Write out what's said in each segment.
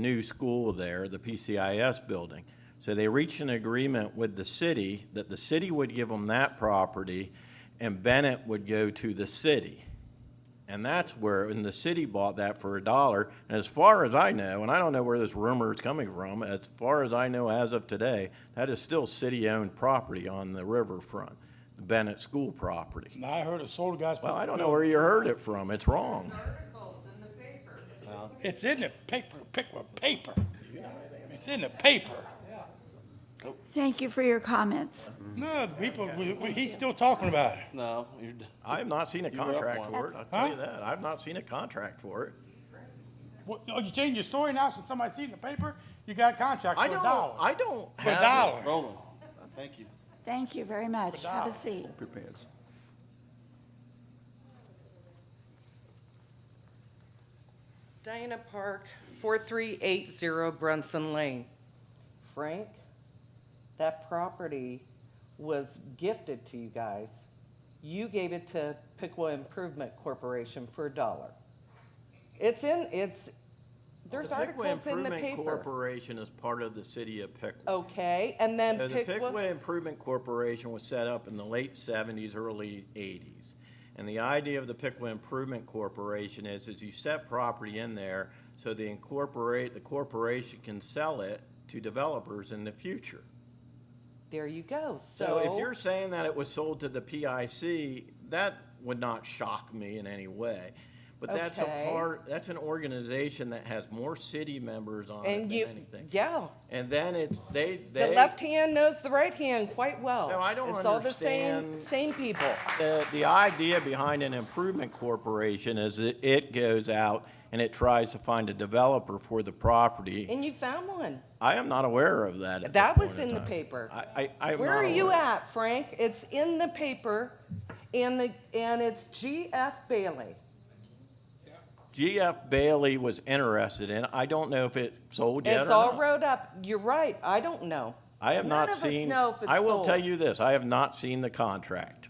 new school there, the PCIS building. So they reached an agreement with the city that the city would give them that property and Bennett would go to the city. And that's where, and the city bought that for a dollar. And as far as I know, and I don't know where this rumor is coming from, as far as I know as of today, that is still city-owned property on the riverfront, Bennett School property. And I heard it sold to guys. Well, I don't know where you heard it from. It's wrong. articles in the paper. It's in the paper, pick with paper. It's in the paper. Thank you for your comments. No, the people, we- we- he's still talking about it. No, you're, d- I have not seen a were up contract one. for it. I'll tell you Huh? that. I've not seen a contract for it. What, oh, you changing your story now since somebody seen it in the paper? You got a contract for I a don't, dollar. I don't For a have. dollar. rolling. Thank you. Thank you very much. Have a Wow. seat. Diana Park, 4380 Brunson Lane. Frank, that property was gifted to you guys. You gave it to Pickwa Improvement Corporation for a dollar. It's in, it's, there's The Pickwa articles in the Improvement paper. Oh, Corporation is part of the city of Pickwa. Okay, and then So The Pickwa, Pickwa Improvement Corporation was set up in the late seventies, early eighties. And the idea of the Pickwa Improvement Corporation is, is you set property in there so they incorporate, the corporation can sell it to developers in the future. there you go, So if so, you're saying that it was sold to the PIC, that would not shock me in any way. But that's a Okay. part, that's an organization that has more city members on it and than you, anything. yeah. And then it's, they, The they. left hand knows the right hand quite well. So I don't It's all the same, understand- same people. The, the idea behind an improvement corporation is that it goes out and it tries to find a developer for the property. And you found one. I am not aware of that at this That was point in the time. paper. I, I, I am Where not are you aware. at, Frank? It's in the paper and the, and it's GF Bailey. GF Bailey was interested in, it. I don't know if it sold yet or It's all not. wrote up. You're right. I don't know. I have None not of us seen. know if it's I will tell sold. you this, I have not seen the contract.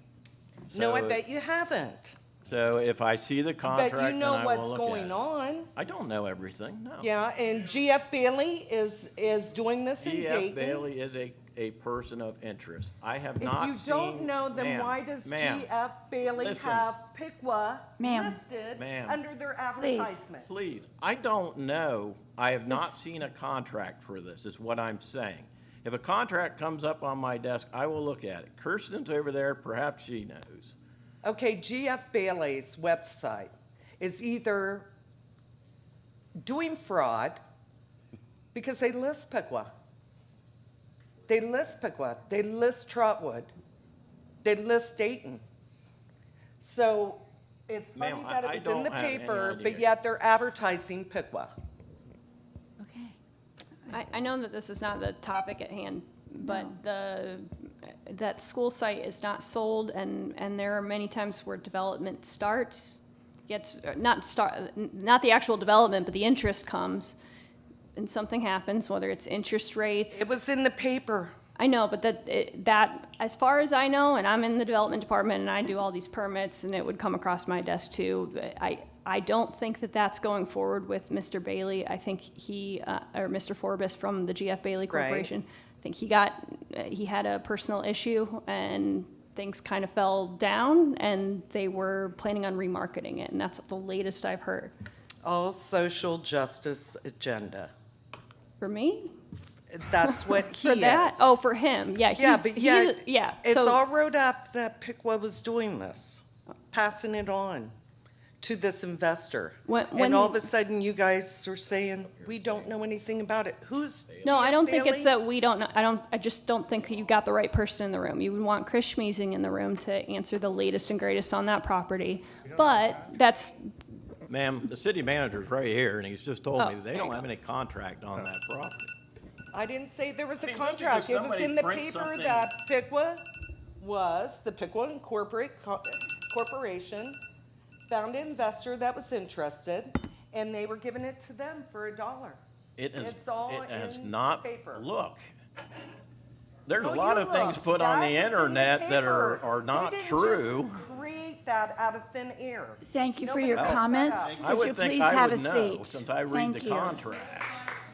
No, I So- bet you haven't. So if I see the But contract, you then know I what's will look at going it. on. I don't know everything, no. Yeah, and GF Bailey is, is doing this in GF Dayton. E Bailey is a, a person of interest. I have If not you seen. don't know, then Ma'am, why does ma'am, GF Bailey listen. have PICWA Ma'am. listed Ma'am. under their advertisement? Please, I don't know. I have not seen a contract for this, is what I'm saying. If a contract comes up on my desk, I will look at it. Kirsten's over there, perhaps she knows. Okay, GF Bailey's website is either doing fraud because they list Piqua. They list Piqua. They list Trotwood. They list Dayton. So it's funny Ma'am, I- that I it was in the don't have any paper, idea. but yet they're advertising Piqua. Okay. I, I know that this is not the topic at hand, but the, that school site is not sold, and, and there are many times where development starts, gets, not start, not the actual development, but the interest comes, and something happens, whether it's interest rates. It was in the paper. I know, but that, it- that, as far as I know, and I'm in the development department, and I do all these permits, and it would come across my desk too, but I, I don't think that that's going forward with Mr. Bailey. I think he, uh, or Mr. Forbes from the GF Bailey Right. Corporation, I think he got, uh, he had a personal issue, and things kind of fell down, and they were planning on remarketing it, and that's the latest I've heard. All social justice agenda. For me? That's what he For that? is. Oh, for him, yeah. Yeah, he's- but he- yet, Yeah. it's so- all wrote up that Piqua was doing this, passing it on to this investor. When- and all when- of a sudden, you guys are saying we don't know anything about it. Who's No, I Jeff don't think Bailey? it's that we don't, know- I don't, I just don't think that you got the right person in the room. You would want Chris Schmeezing in the room to answer the latest and greatest on that property. But that's, Ma'am, the city manager's right here, and he's just told Oh, me that there they you don't go. have any contract on that property. I didn't say there was a mean, just because contract. It was somebody in the prints paper something- that Piqua was the Piqua Incorporate Co- Corporation found an investor that was interested, and they were giving it to them for a dollar. It has, It's all it has in not, paper. look. There's a Oh, lot you of things look, put on the that was in internet that are, paper. are They not didn't just true. Create that out of thin air. Thank you for Nobody your else set comments. up. I Would you would think please I have a would know, seat? since I read the Thank you. contracts.